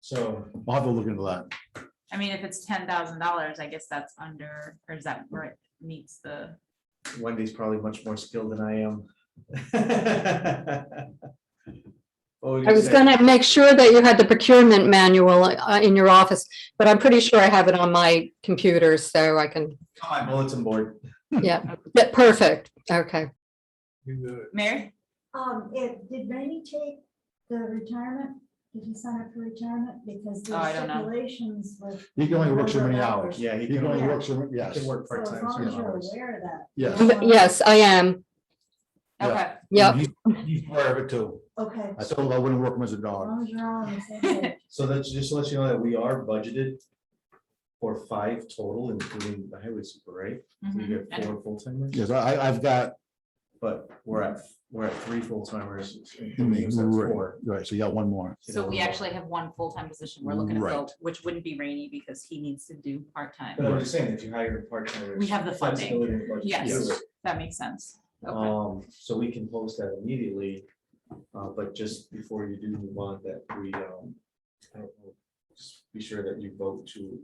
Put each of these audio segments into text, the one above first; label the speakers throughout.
Speaker 1: So
Speaker 2: I'll have to look into that.
Speaker 3: I mean, if it's ten thousand dollars, I guess that's under, or is that where it meets the,
Speaker 1: Wendy's probably much more skilled than I am. What were you
Speaker 4: I was
Speaker 1: say?
Speaker 4: gonna make sure that you had the procurement manual uh, in your office, but I'm pretty sure I have it on my computer, so I can,
Speaker 1: On My bulletin board.
Speaker 4: yeah, Yeah, perfect, okay.
Speaker 3: Mary?
Speaker 5: Um, it, did Rainey take the retirement? Did he sign up for retirement? Because
Speaker 3: Oh, I
Speaker 5: the
Speaker 3: don't know.
Speaker 5: stipulations with.
Speaker 2: He can only work so many
Speaker 5: Number of
Speaker 2: hours.
Speaker 1: Yeah, he
Speaker 2: He can
Speaker 1: can,
Speaker 2: only
Speaker 1: work-
Speaker 2: work so,
Speaker 1: he
Speaker 2: yes,
Speaker 1: can work
Speaker 5: So as
Speaker 1: part-time.
Speaker 5: long as
Speaker 1: some
Speaker 5: you're
Speaker 1: hours.
Speaker 5: aware of that.
Speaker 2: yes.
Speaker 5: Um,
Speaker 4: Yes, I am,
Speaker 2: Yeah.
Speaker 3: Okay,
Speaker 4: yep,
Speaker 2: He- He's aware of it too.
Speaker 5: Okay,
Speaker 2: I
Speaker 5: as
Speaker 2: told him I wouldn't work him as a dog.
Speaker 5: long as you're all on the same page.
Speaker 1: So that's just to let you know that we are budgeted for five total, including the highway super, right? We
Speaker 3: mhm, I
Speaker 1: get
Speaker 3: know.
Speaker 1: four full timers,
Speaker 2: Yes, I, I- I've got,
Speaker 1: but we're at, we're at three full timers.
Speaker 2: right, right, so you got one more.
Speaker 3: so we actually have one full-time position we're looking to fill,
Speaker 2: Right.
Speaker 3: which wouldn't be Rainy because he needs to do part-time.
Speaker 1: But I'm just saying, if you hire a part-timer.
Speaker 3: We have the funding. Yes.
Speaker 1: Yes.
Speaker 3: That makes sense.
Speaker 2: Uh,
Speaker 3: Okay.
Speaker 1: Um, so we can post that immediately, uh, but just before you do move on, that we, um, I don't know, just be sure that you vote to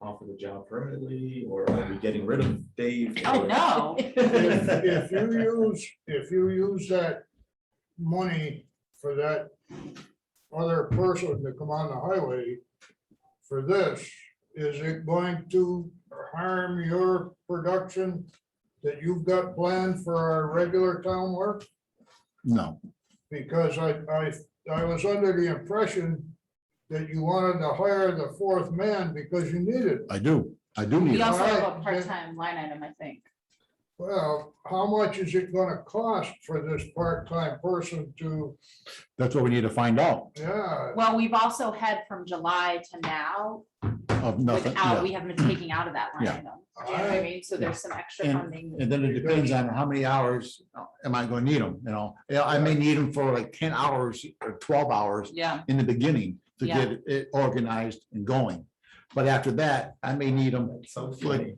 Speaker 1: offer the job permanently, or are we getting rid of Dave?
Speaker 3: Oh, no.
Speaker 6: If if you use, if you use that money for that other person to come on the highway for this, is it going to harm your production that you've got planned for our regular town work?
Speaker 2: No,
Speaker 6: Because I, I, I was under the impression that you wanted to hire the fourth man because you needed.
Speaker 2: I do, I do need
Speaker 3: We
Speaker 2: it.
Speaker 3: also have a
Speaker 6: Alright.
Speaker 3: part-time line item, I think.
Speaker 6: Well, how much is it gonna cost for this part-time person to,
Speaker 2: That's what we need to find out
Speaker 6: yeah,
Speaker 3: Well, we've also had from July to now,
Speaker 2: of nothing.
Speaker 3: without,
Speaker 2: yeah.
Speaker 3: we haven't been taking out of that line
Speaker 2: Yeah.
Speaker 3: item. Do you know what I mean? So there's some extra
Speaker 2: And-
Speaker 3: funding.
Speaker 2: And then it depends on how many hours uh, am I gonna need them, you know? Yeah, I may need them for like ten hours or twelve hours
Speaker 3: Yeah,
Speaker 2: in the beginning to
Speaker 3: Yeah.
Speaker 2: get it organized and going. But after that, I may need them
Speaker 1: So funny.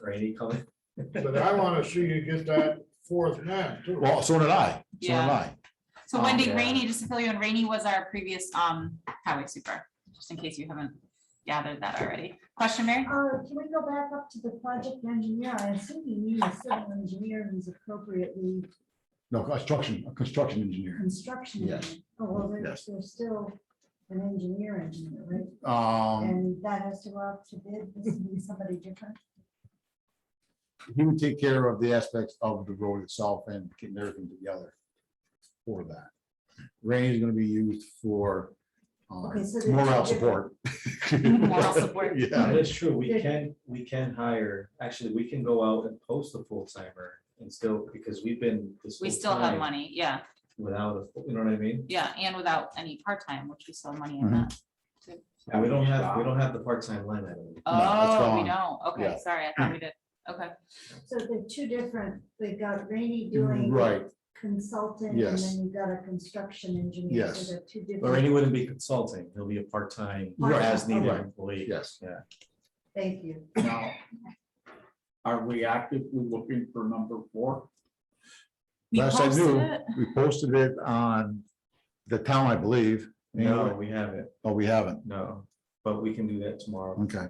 Speaker 1: Rainy coming.
Speaker 6: but I wanna see you get that fourth man too.
Speaker 2: Well, so did I, so did
Speaker 3: Yeah.
Speaker 2: I.
Speaker 3: so
Speaker 2: Um,
Speaker 3: Wendy
Speaker 1: yeah.
Speaker 3: Rainey, just to fill you in, Rainey was our previous um highway super, just in case you haven't gathered that already. Question, Mary?
Speaker 5: Uh, can we go back up to the project engineer? I assume you need a civil engineer who's appropriately
Speaker 2: No, construction, a construction engineer.
Speaker 5: construction.
Speaker 2: Yes.
Speaker 5: engineer. Oh, well,
Speaker 2: Yes.
Speaker 5: there's, there's still an engineer engineer, right?
Speaker 2: Um,
Speaker 5: And that has to go out to bid, this would be somebody different.
Speaker 2: he would take care of the aspects of the road itself and getting everything together for that. Rain is gonna be used for um,
Speaker 5: Okay, so there's
Speaker 2: morale
Speaker 5: two
Speaker 2: support.
Speaker 3: Moral support.
Speaker 2: Yeah,
Speaker 1: That is true. We can, we can hire, actually, we can go out and post a full timer and still, because we've been. this
Speaker 3: We
Speaker 1: whole
Speaker 3: still have
Speaker 1: time
Speaker 3: money, yeah,
Speaker 1: Without, a you know what I mean?
Speaker 3: yeah, and without any part-time, which we still have money in
Speaker 2: Mhm.
Speaker 3: that.
Speaker 1: And we don't have, we don't have the part-time line item.
Speaker 2: it's
Speaker 3: Oh, we
Speaker 2: gone.
Speaker 3: don't, okay,
Speaker 2: Yeah.
Speaker 3: sorry, I thought we did, okay.
Speaker 5: So they're two different, they've got Rainy doing.
Speaker 2: Mm-hmm. Right.
Speaker 5: Consultant, and
Speaker 2: Yes.
Speaker 5: then you've got a construction engineer.
Speaker 2: Yes.
Speaker 5: So they're two
Speaker 1: Or he
Speaker 5: different,
Speaker 1: wouldn't be consulting. He'll be a part-time,
Speaker 5: Right.
Speaker 3: Oh,
Speaker 1: as needed
Speaker 2: Right.
Speaker 1: employee.
Speaker 2: yes.
Speaker 5: thank you.
Speaker 7: Now, are we actively looking for number four?
Speaker 3: We
Speaker 2: Last I
Speaker 3: posted
Speaker 2: knew,
Speaker 3: it.
Speaker 2: we posted it on the town, I believe.
Speaker 1: No, we haven't.
Speaker 2: Oh, we haven't.
Speaker 1: No, but we can do that tomorrow.
Speaker 2: Okay,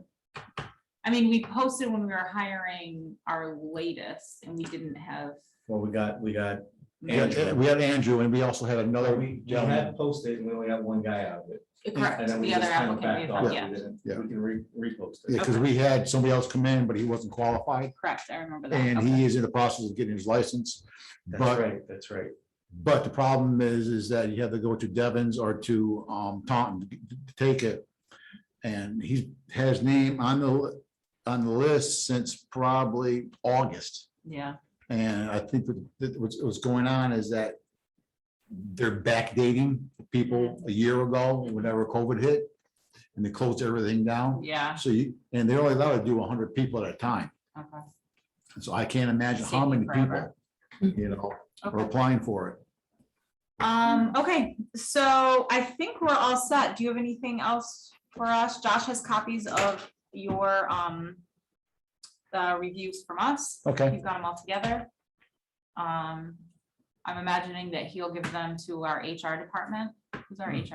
Speaker 3: I mean, we posted when we were hiring our latest and we didn't have.
Speaker 1: Well, we got, we got,
Speaker 2: we had we had Andrew and we also had another.
Speaker 1: we we
Speaker 2: gentleman.
Speaker 1: had posted and we only got one guy out of it.
Speaker 3: Correct,
Speaker 1: And then we
Speaker 3: the other
Speaker 1: just kinda
Speaker 3: applicant, we
Speaker 1: backed
Speaker 3: had,
Speaker 1: off.
Speaker 3: yeah,
Speaker 1: We didn't-
Speaker 2: Yeah.
Speaker 1: We can re, repost
Speaker 2: Yeah,
Speaker 1: it.
Speaker 2: because we had somebody else come in, but he wasn't qualified,
Speaker 3: correct, I remember that.
Speaker 2: and
Speaker 3: okay.
Speaker 2: he is in the process of getting his license.
Speaker 1: That's
Speaker 2: But,
Speaker 1: right, that's right.
Speaker 2: but the problem is, is that you have to go to Devon's or to um, Taunton to to take it. And he's had his name on the, li- on the list since probably August.
Speaker 3: Yeah,
Speaker 2: And I think that- that what's, what's going on is that they're backdating people a year ago, whenever COVID hit, and they closed everything down.
Speaker 3: yeah,
Speaker 2: So you, and they're only allowed to do hundred people at a time.
Speaker 3: okay.
Speaker 2: So I can't imagine
Speaker 3: It's
Speaker 2: how many
Speaker 3: taking
Speaker 2: people,
Speaker 3: forever.
Speaker 2: you know, are
Speaker 3: Okay.
Speaker 2: applying for it.
Speaker 3: Um, okay, so I think we're all set. Do you have anything else for us? Josh has copies of your, um, the reviews from us.
Speaker 2: Okay.
Speaker 3: You've got them all together. Um, I'm imagining that he'll give them to our HR department. Who's our
Speaker 1: Mhm.
Speaker 3: HR